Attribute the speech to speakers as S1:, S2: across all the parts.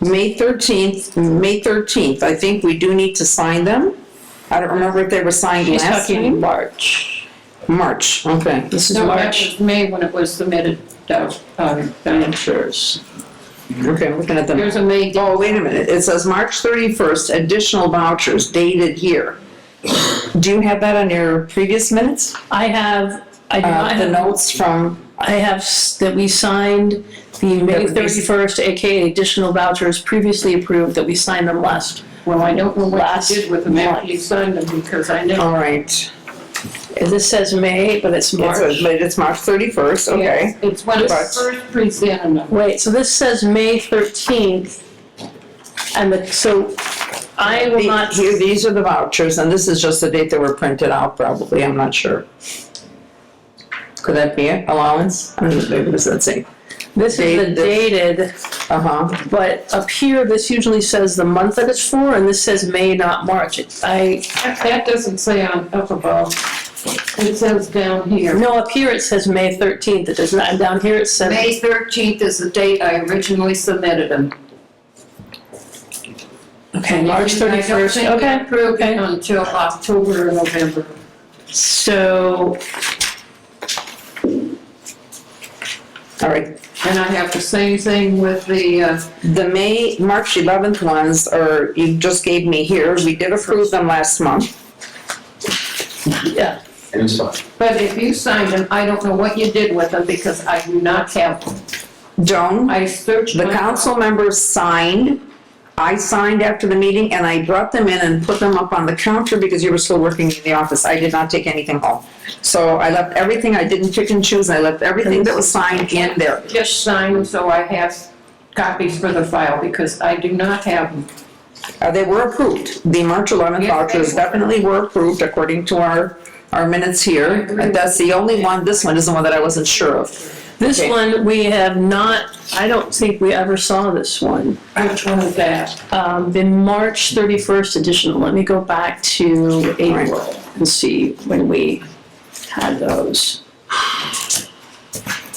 S1: May thirteenth, May thirteenth, I think we do need to sign them. I don't remember if they were signed
S2: She's
S1: last
S2: talking
S1: time.
S2: in March.
S1: March, okay.
S2: This is
S3: No, that
S2: March.
S3: was May when it was submitted, uh, um, insurance.
S1: Okay, I'm looking at them.
S3: Here's a May,
S1: Oh, wait a minute, it says March thirty-first, additional vouchers dated here. Do you have that on your previous minutes?
S2: I have, I do not
S1: Uh, the
S2: have,
S1: notes from,
S2: I have s- that we signed the May
S1: would be-
S2: 31st, AKA additional vouchers previously approved, that we signed them last.
S3: well, I don't know what
S2: Last
S3: Oh, you did with them after you signed them because I know
S1: all right.
S2: And This says May, but it's
S1: It says,
S2: March.
S1: but it's March thirty-first, okay.
S3: it's- it's when it
S1: But-
S3: was first presented them.
S2: Wait, so this says May 13th. And the, so I will
S1: The-
S2: not,
S1: Here, these are the vouchers, and this is just the date they were printed out, probably, I'm not sure. Could that be it, allowance? I don't know, maybe this, let's see.
S2: this is the dated,
S1: Uh-huh,
S2: but up here, this usually says the month that it's for, and this says May, not March. It- I,
S3: That that doesn't say on up above. It says down here.
S2: no, up here it says May 13th. It does not, and down here it says.
S3: May thirteenth is the date I originally submitted them.
S2: Okay, March thirty-first,
S3: I don't think we
S2: okay.
S3: approved
S2: okay.
S3: it until October or November.
S2: So,
S1: all right.
S3: And I have the same thing with the, uh,
S1: The May, March 11th ones are, you just gave me here, we did approve them last month.
S2: yeah,
S4: And it's fine.
S3: but if you signed them, I don't know what you did with them because I do not have them.
S1: Joan,
S3: I searched.
S1: the
S3: my-
S1: council members signed, I signed after the meeting, and I brought them in and put them up on the counter because you were still working in the office. I did not take anything home. So I left everything, I didn't pick and choose, I left everything that was signed in there.
S3: Just signed them, so I have copies for the file because I do not have them.
S1: Uh, They were approved. The March 11th
S3: Yes, they
S1: vouchers
S3: were.
S1: definitely were approved according to our, our minutes here.
S3: agree.
S1: That's the only one, this one is the one that I wasn't sure of.
S2: this
S1: Okay.
S2: one, we have not, I don't think we ever saw this one.
S3: Which one is that?
S2: Um, the March thirty-first edition, let me go back to April and see when we had those.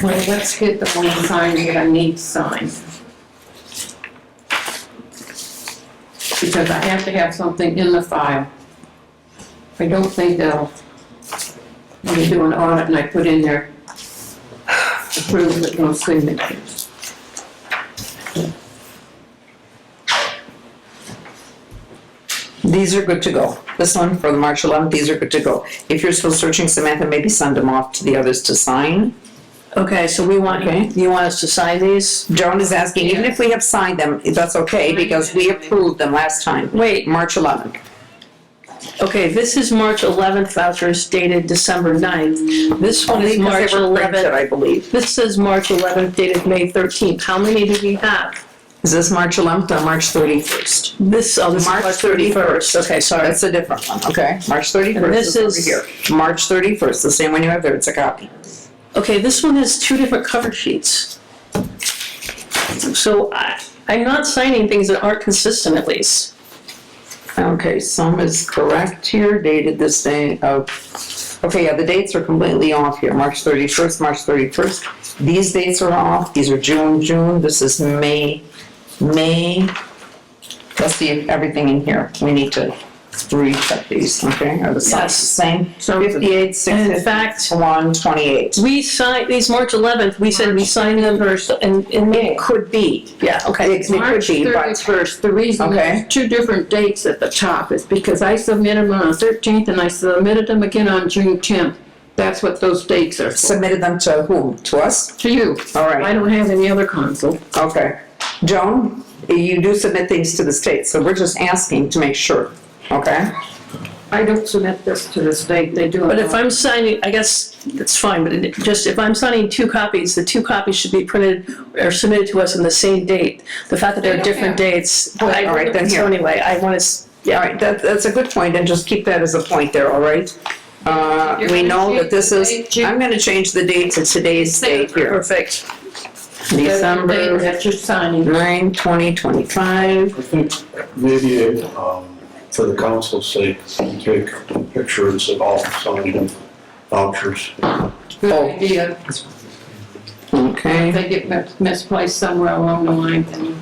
S3: Well, let's get the one signed that I need signed. Because I have to have something in the file. I don't think they'll, when you do an audit and I put in there, approve it, no signatures.
S1: These are good to go. This one for the March 11th, these are good to go. If you're still searching, Samantha, maybe send them off to the others to sign.
S2: Okay, so we
S1: Okay.
S2: want, you want us to sign these?
S1: Joan is asking, even if we have signed them, that's okay because we approved them last time,
S2: Wait,
S1: March 11th.
S2: okay, this is March eleventh vouchers dated December 9th. This one
S1: Only
S2: is
S1: 'cause they
S2: March
S1: were printed,
S2: eleventh,
S1: I believe.
S2: this says March eleventh dated May thirteenth. How many do we have?
S1: Is this March 11th or March 31st?
S2: This, oh, this is
S1: March
S2: March thirty-first, okay, sorry.
S1: That's a different one, okay? March 31st
S2: this
S1: is over
S2: is-
S1: here. March 31st, the same one you have there, it's a copy.
S2: Okay, this one has two different cover sheets. So I, I'm not signing things that aren't consistent at least.
S1: Okay, some is correct here, dated this day of, okay, yeah, the dates are completely off here, March thirty-first, March thirty-first. These dates are off, these are June, June, this is May, May. Let's see everything in here, we need to recheck these, okay, are the
S2: Yes.
S1: size the same?
S2: So-
S1: Fifty-eight, six
S2: And in fact-
S1: fifty-one, twenty-eight.
S2: We signed, these March 11th, we said we signed them first in, in May.
S1: Could be,
S2: Yeah, okay.
S1: it it could be,
S3: March
S1: but,
S3: thirty-first, the reason
S1: Okay.
S3: there's two different dates at the top is because I submitted them on the thirteenth and I submitted them again on June tenth. That's what those dates are for,
S1: submitted them to whom, to us?
S3: to you.
S1: All right.
S3: I don't have any other council.
S1: Okay. Joan, you do submit things to the state, so we're just asking to make sure, okay?
S3: I don't submit this to the state, they do it.
S2: But if I'm signing, I guess that's fine, but it- just if I'm signing two copies, the two copies should be printed or submitted to us on the same date. The fact that they're different dates, I,
S1: All right, then here.
S2: so anyway, I want to,
S1: Yeah, all right, that, that's a good point, and just keep that as a point there, all right? Uh, we know that this is, I'm gonna change the date to today's date here.
S2: perfect.
S3: December.
S1: December
S3: That you're signing.
S1: nine, twenty twenty-five.
S4: I think maybe, um, for the council's sake, we take pictures of all signed vouchers.
S3: Good
S1: Oh.
S3: idea. If
S1: Okay,
S3: they get mis- misplaced somewhere along the line, then